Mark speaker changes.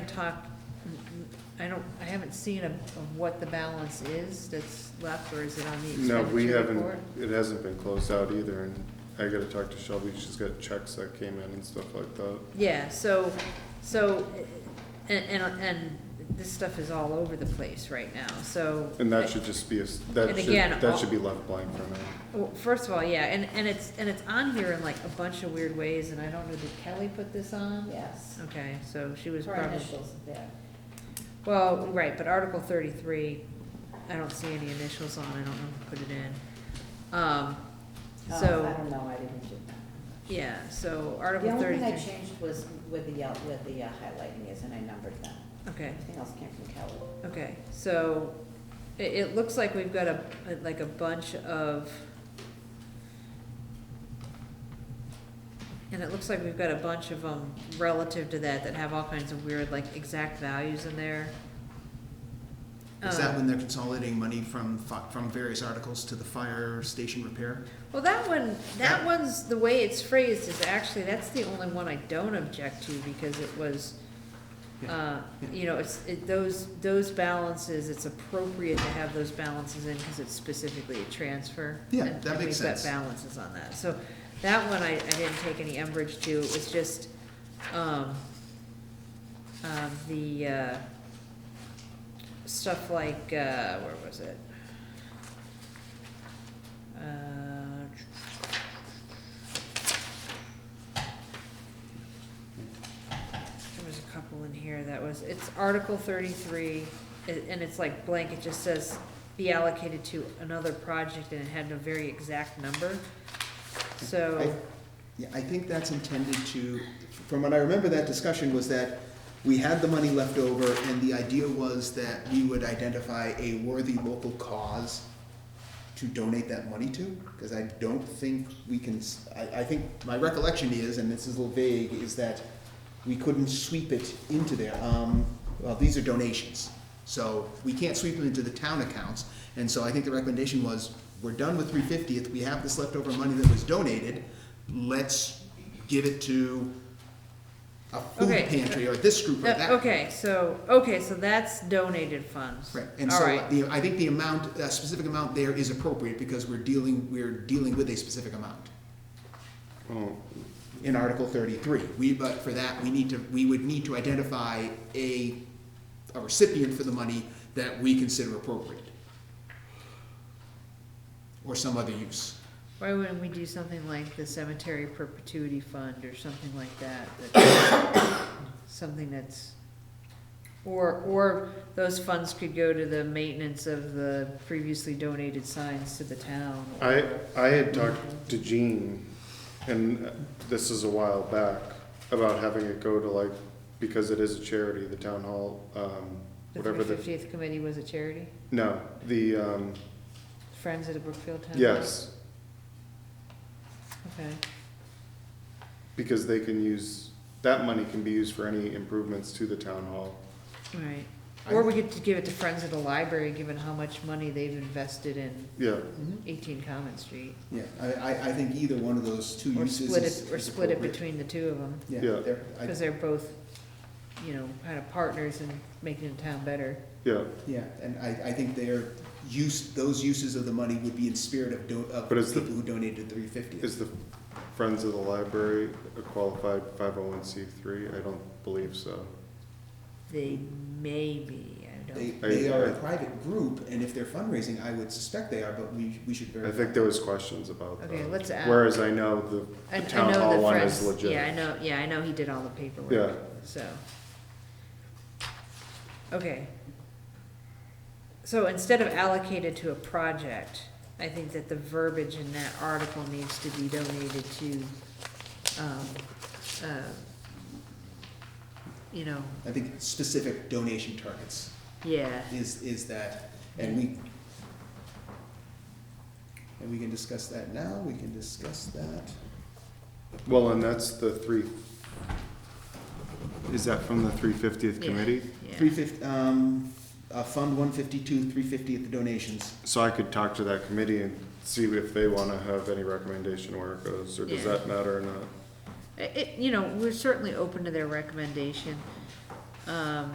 Speaker 1: talked, I don't, I haven't seen of, of what the balance is that's left, or is it on the
Speaker 2: No, we
Speaker 1: expenditure
Speaker 2: haven't,
Speaker 1: report?
Speaker 2: it hasn't been closed out either, and I gotta talk to Shelby, she's got checks that came in and stuff like that.
Speaker 1: Yeah, so, so, and, and, and this stuff is all over the place right now, so.
Speaker 2: And that should just be, a s- that
Speaker 1: And
Speaker 2: should,
Speaker 1: again, all-
Speaker 2: that should be left blank for now.
Speaker 1: Well, first of all, yeah, and, and it's, and it's on here in like a bunch of weird ways, and I don't know, did Kelly put this on?
Speaker 3: Yes.
Speaker 1: Okay, so she was
Speaker 3: Her
Speaker 1: probably.
Speaker 3: initials, yeah.
Speaker 1: Well, right, but Article thirty-three, I don't see any initials on, I don't know who put it in. Um,
Speaker 3: Oh, I
Speaker 1: so,
Speaker 3: don't know, I didn't do that.
Speaker 1: yeah, so
Speaker 3: The
Speaker 1: Article
Speaker 3: only thing I
Speaker 1: thirty-three,
Speaker 3: changed was with the, yel- with the uh, highlighting is, and I numbered them.
Speaker 1: okay,
Speaker 3: Everything else came from Kelly.
Speaker 1: okay, so it, it looks like we've got a, like a bunch of, and it looks like we've got a bunch of them relative to that that have all kinds of weird, like, exact values in there.
Speaker 4: Is that
Speaker 1: Um,
Speaker 4: when they're consolidating money from, fi- from various articles to the fire station repair?
Speaker 1: Well, that one, that
Speaker 4: Yeah.
Speaker 1: one's, the way it's phrased is actually, that's the only one I don't object to because it was, uh, you know, it's, it, those, those balances, it's appropriate to have those balances in because it's specifically a transfer.
Speaker 4: Yeah,
Speaker 1: and-
Speaker 4: that
Speaker 1: and
Speaker 4: makes sense.
Speaker 1: We've got balances on that. So that one I, I didn't take any umbrage to. It was just, um, um, the, uh, stuff like, uh, where was it? Uh, There was a couple in here that was, it's Article thirty-three, a- and it's like blank, it just says be allocated to another project, and it had a very exact number. So,
Speaker 4: Yeah, I think that's intended to, from what I remember, that discussion was that we had the money left over, and the idea was that we would identify a worthy local cause to donate that money to, because I don't think we can, s- I, I think, my recollection is, and this is a little vague, is that we couldn't sweep it into there, um, well, these are donations, so we can't sweep them into the town accounts, and so I think the recommendation was, we're done with three fiftieth, we have this leftover money that was donated, let's give it to a food
Speaker 1: Okay.
Speaker 4: pantry, or this group, or
Speaker 1: that-
Speaker 4: that.
Speaker 1: okay, so, okay, so that's donated funds.
Speaker 4: Right, and
Speaker 1: All
Speaker 4: so
Speaker 1: right.
Speaker 4: the, I think the amount, a specific amount there is appropriate because we're dealing, we're dealing with a specific amount
Speaker 2: Oh,
Speaker 4: in Article thirty-three. We, but for that, we need to, we would need to identify a, a recipient for the money that we consider appropriate. Or some other use.
Speaker 1: Why wouldn't we do something like the cemetery perpetuity fund or something like that? that- Something that's, or, or those funds could go to the maintenance of the previously donated signs to the town. or-
Speaker 2: I, I had talked to Jean, and uh, this is a while back, about having it go to like, because it is a charity, the town hall, um,
Speaker 1: The
Speaker 2: whatever
Speaker 1: three
Speaker 2: the,
Speaker 1: fiftieth committee was a charity,
Speaker 2: no, the, um,
Speaker 1: Friends of the Brookfield Town?
Speaker 2: yes,
Speaker 1: Okay,
Speaker 2: because they can use, that money can be used for any improvements to the town hall.
Speaker 1: all right.
Speaker 4: I-
Speaker 1: Or we could give it to Friends of the Library, given how much money they've invested in
Speaker 2: Yeah,
Speaker 1: eighteen Common Street.
Speaker 4: Yeah, I, I, I think either one of those two
Speaker 1: Or
Speaker 4: uses
Speaker 1: split
Speaker 4: is
Speaker 1: it, or split it
Speaker 4: appropriate.
Speaker 1: between the two of them.
Speaker 2: Yeah.
Speaker 4: Yeah, there- I-
Speaker 1: Because they're both, you know, kind of partners in making the town better.
Speaker 2: yeah,
Speaker 4: Yeah, and I, I think their use, those uses of the money would be in spirit of, do- of
Speaker 2: But is the-
Speaker 4: people who donated three fifty.
Speaker 2: is the Friends of the Library a qualified five oh one C three? I don't believe so.
Speaker 1: They may be, I
Speaker 4: They,
Speaker 1: don't,
Speaker 4: they are
Speaker 2: I-
Speaker 4: a private group, and if they're fundraising, I would suspect they are, but we, we should
Speaker 2: I
Speaker 4: verify.
Speaker 2: think there was questions about that.
Speaker 1: okay, let's add.
Speaker 2: Whereas I know the,
Speaker 1: I-
Speaker 2: the
Speaker 1: I
Speaker 2: town
Speaker 1: know
Speaker 2: hall
Speaker 1: the
Speaker 2: one
Speaker 1: friends-
Speaker 2: is legit.
Speaker 1: Yeah, I know, yeah, I know he did all the
Speaker 2: Yeah.
Speaker 1: paperwork, so. Okay. So instead of allocated to a project, I think that the verbiage in that article needs to be donated to, um, uh, you know,
Speaker 4: I think specific donation targets
Speaker 1: yeah,
Speaker 4: is, is that, and we, and we can discuss that now, we can discuss that.
Speaker 2: Well, and that's the three, is that from the three fiftieth
Speaker 1: Yeah.
Speaker 2: committee?
Speaker 1: yeah.
Speaker 4: Three fifty, um, uh, Fund one fifty-two, three fifty at the donations.
Speaker 2: So I could talk to that committee and see if they wanna have any recommendation where it goes, or does
Speaker 1: Yeah.
Speaker 2: that matter or not?
Speaker 1: It, you know, we're certainly open to their recommendation. Um,